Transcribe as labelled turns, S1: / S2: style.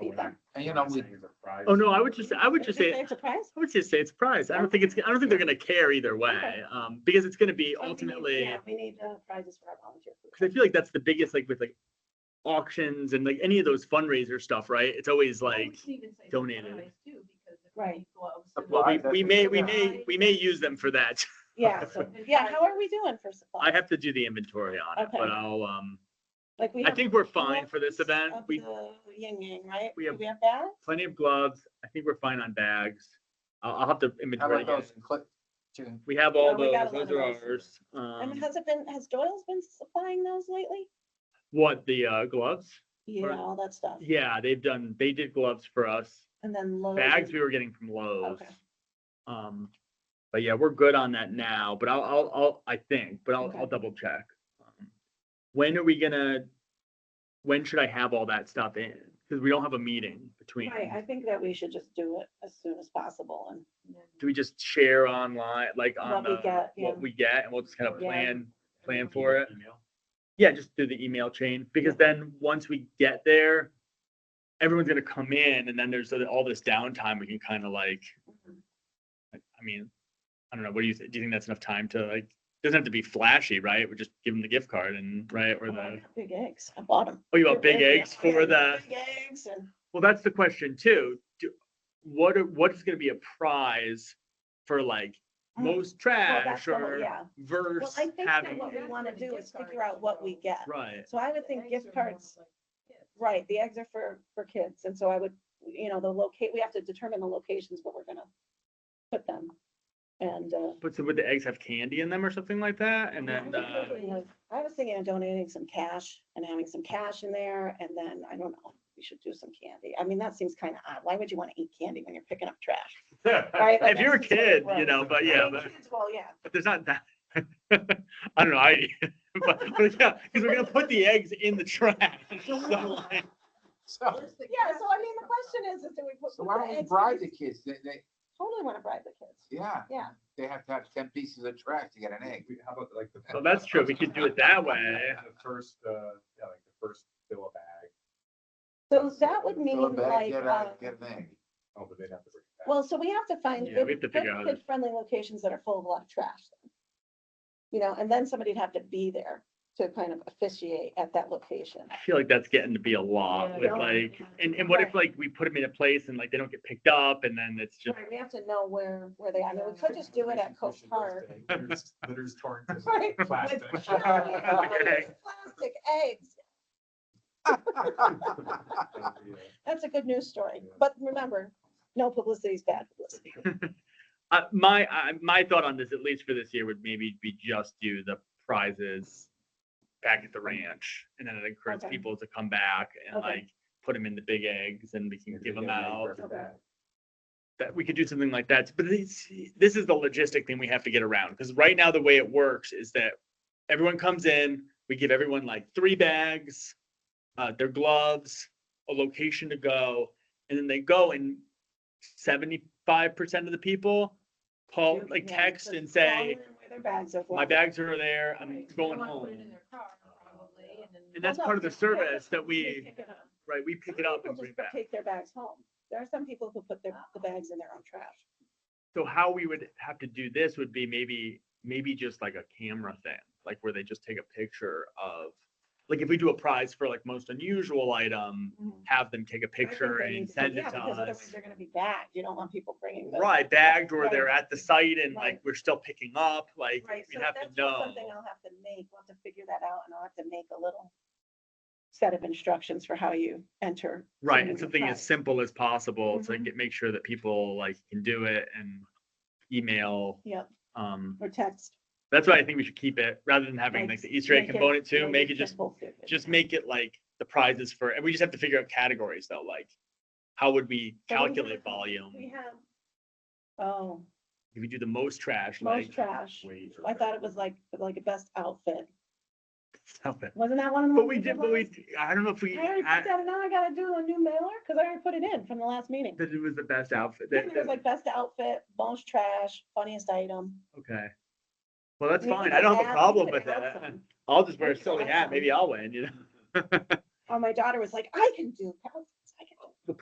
S1: Oh,
S2: you know, we,
S3: Oh, no, I would just, I would just say, I
S4: It's a prize.
S3: would just say it's a prize. I don't think it's, I don't think they're gonna care either way,
S4: Okay.
S3: um, because it's gonna be
S4: Oh, we need-
S3: ultimately,
S4: yeah, We need uh, prizes for our volunteers.
S3: because I feel like that's the biggest, like with like auctions and like any of those fundraiser stuff, right? It's always like, donated.
S4: Right.
S3: well, we, we may, we may,
S1: Supply.
S3: we may use them for that.
S4: Yeah, so, yeah, how are we doing for
S3: I
S4: supplies?
S3: have to do the inventory on it, but
S4: Okay.
S3: I'll, um,
S4: Like we
S3: I
S4: have
S3: think we're fine for this
S4: gloves
S3: event.
S4: of
S3: We,
S4: the Yin yang, right?
S3: we
S4: Do
S3: have-
S4: We have that?
S3: plenty of gloves. I think we're fine on bags. I'll, I'll have to
S2: how about
S3: inventory again.
S2: those clip, to,
S3: We have all
S4: Oh, we
S3: those,
S4: got a lot of
S3: those are
S4: those.
S3: ours.
S4: And
S3: Um,
S4: has it been, has Doyle's been supplying those lately?
S3: what, the, uh, gloves?
S4: Yeah, all that stuff.
S3: Yeah, they've done, they did gloves for us.
S4: And then Lowe's.
S3: Bags
S4: is-
S3: we were getting from Lowe's.
S4: Okay.
S3: Um, but yeah, we're good on that now, but I'll, I'll, I'll, I think, but I'll,
S4: Okay.
S3: I'll double check. Um, When are we gonna, when should I have all that stuff in? Cause we don't have a meeting between.
S4: Right, I think that we should just do it as soon as possible and.
S3: Do we just share online, like on
S4: What we
S3: the,
S4: get, yeah.
S3: what we get and we'll just kind of
S4: Yeah.
S3: plan, plan for it? Yeah, just through the email chain, because then once we get there, everyone's gonna come in and then there's all this downtime we can kind of like, I I mean, I don't know, what do you, thi- do you think that's enough time to like, doesn't have to be flashy, right? We just give them the gift card and, right, or
S4: Oh, I
S3: the,
S4: got Big eggs, I bought them.
S3: oh, you want big eggs for the,
S4: Big eggs and
S3: well, that's the question too. Do- What, are- what is gonna be a prize for like
S4: Mm.
S3: most
S4: Well, that's
S3: trash
S4: the whole-
S3: or
S4: Yeah. Well,
S3: verse
S4: I think that
S3: having,
S4: what we
S1: That's
S4: want to
S1: what a
S4: do
S1: gift
S4: is
S1: card
S4: figure out what we
S1: is.
S4: get.
S3: right,
S4: So I would think gift cards, right, the eggs are for, for kids, and so I would, you know, the locate, we have to determine the locations where we're gonna put them. And, uh,
S3: but so would the eggs have candy in them or something like that? And
S4: I
S3: then,
S4: was
S3: uh,
S4: thinking of- I was thinking of donating some cash and having some cash in there, and then, I don't know, we should do some candy. I mean, that seems kind of odd. Why would you want to eat candy when you're picking up trash? Right? Like,
S3: uh, if you're a
S4: that seems really
S3: kid, you
S4: gross.
S3: know, but
S4: I
S3: yeah,
S4: mean,
S3: but,
S4: kids, Well, yeah,
S3: but there's not that. I don't know, I, but, but yeah, because we're gonna put the eggs in the trash. So, like,
S2: so,
S4: yeah, so I mean, the question is, is do we put?
S2: so
S4: put
S2: why
S4: the
S2: don't we
S4: eggs
S2: bribe
S4: in-
S2: the kids? They, they,
S4: Totally want to bribe the kids.
S2: yeah.
S4: Yeah.
S2: They have to have ten pieces of trash to get an egg.
S1: How about like the.
S3: So that's true, we could do it that way.
S1: The first, uh, yeah, like the first fill a bag,
S4: So that would
S2: Go
S4: mean
S2: back,
S4: like,
S2: get
S4: uh,
S2: a, get an egg.
S1: oh, but they'd have to bring it back.
S4: well, so we have to find
S3: Yeah, we have to
S4: good,
S3: figure out how to-
S4: friendly locations that are full of a lot of trash. then. You know, and then somebody'd have to be there to kind of officiate at that location.
S3: I feel like that's getting to be a lot with
S4: Yeah.
S3: like, and, and what if like we put them in a place and like they don't get picked up and then it's just,
S4: Right, We have to know where, where they, I mean, we could just do it at Coach Park.
S1: Litters- Litters torn to
S4: Right, with
S1: plastic.
S4: Plastic plastic eggs.
S1: uh,
S4: That's a good news story.
S1: Yeah.
S4: But remember, no publicity is bad publicity.
S3: uh, my, I, my thought on this, at least for this year, would maybe be just do the prizes back at the ranch and then it encourages
S4: Okay.
S3: people to come back and
S4: Okay.
S3: like put them in the big eggs and we can give them out.
S4: Okay.
S3: that we could do something like that. But this, this is the logistic thing we have to get around because right now the way it works is that everyone comes in, we give everyone like three bags, uh, their gloves, a location to go, and then they go and seventy-five percent of the people call like
S4: Yeah,
S3: text
S4: just
S3: and
S4: call
S3: say,
S4: in where their bags are
S3: my
S4: going.
S3: bags are there, I'm
S5: Right,
S3: going
S5: someone
S3: home.
S5: put it in their car, probably, and then-
S3: And that's
S4: Well,
S3: part of
S4: no,
S3: the
S4: just pick up-
S3: service that
S4: just
S3: we,
S4: pick it up.
S3: right, we pick
S4: Some
S3: it up
S4: people
S3: and bring
S4: just
S3: it back.
S4: Take their bags home. There are some people who put their, the bags in their own trash.
S3: So how we would have to do this would be maybe, maybe just like a camera thing, like where they just take a picture of, like if we do a prize for like most unusual item, have them take a
S4: Mm-hmm. I think
S3: picture
S4: they need to
S3: and
S4: do-
S3: send
S4: yeah,
S3: it to
S4: because Otherwise,
S3: us.
S4: they're gonna be bagged. You don't want people bringing. those-
S3: Right, bagged or
S4: Right.
S3: they're at the site and like
S4: Right.
S3: we're still picking up, like
S4: Right,
S3: we
S4: so
S3: have to
S4: that's just
S3: know.
S4: something I'll have to make. We'll have to figure that out and I'll have to make a little set of instructions for how you enter. someone
S3: Right, and
S4: with a
S3: something as
S4: prize.
S3: simple as possible to
S4: Mhm.
S3: get, make sure that people like can do it and email.
S4: Yep,
S3: Um,
S4: or text.
S3: that's why I think we should keep it, rather than having like the Easter egg
S4: Make it-
S3: component too, make it just
S4: simple too.
S3: just make it like the prizes for, and we just have to figure out categories though, like how would we
S4: So we have-
S3: calculate volume?
S4: We have, oh,
S3: If we do the most trash,
S4: most
S3: like.
S4: trash.
S1: Wait for
S4: I
S1: that.
S4: thought it was like, like a best outfit.
S3: Stop it.
S4: Wasn't that one of the?
S3: But
S4: ones
S3: we did, but
S4: last?
S3: we, I don't know if we,
S4: I already put
S3: I-
S4: that, in. now I gotta do a new mailer, cause I already put it in from the last meeting.
S3: that it was the best outfit.
S4: Yeah,
S3: that-
S4: It was
S3: that-
S4: like best outfit, most trash, funniest item.
S3: Okay. Well, that's
S4: We
S3: fine.
S4: could
S3: I don't have
S4: add-
S3: a
S4: we
S3: problem
S4: could
S3: with
S4: add
S3: that.
S4: some.
S3: I'll just wear
S4: We
S3: a
S4: could
S3: silly
S4: add
S3: hat.
S4: some.
S3: Maybe I'll win, you know?
S4: Oh, my daughter was like, I can do, cal-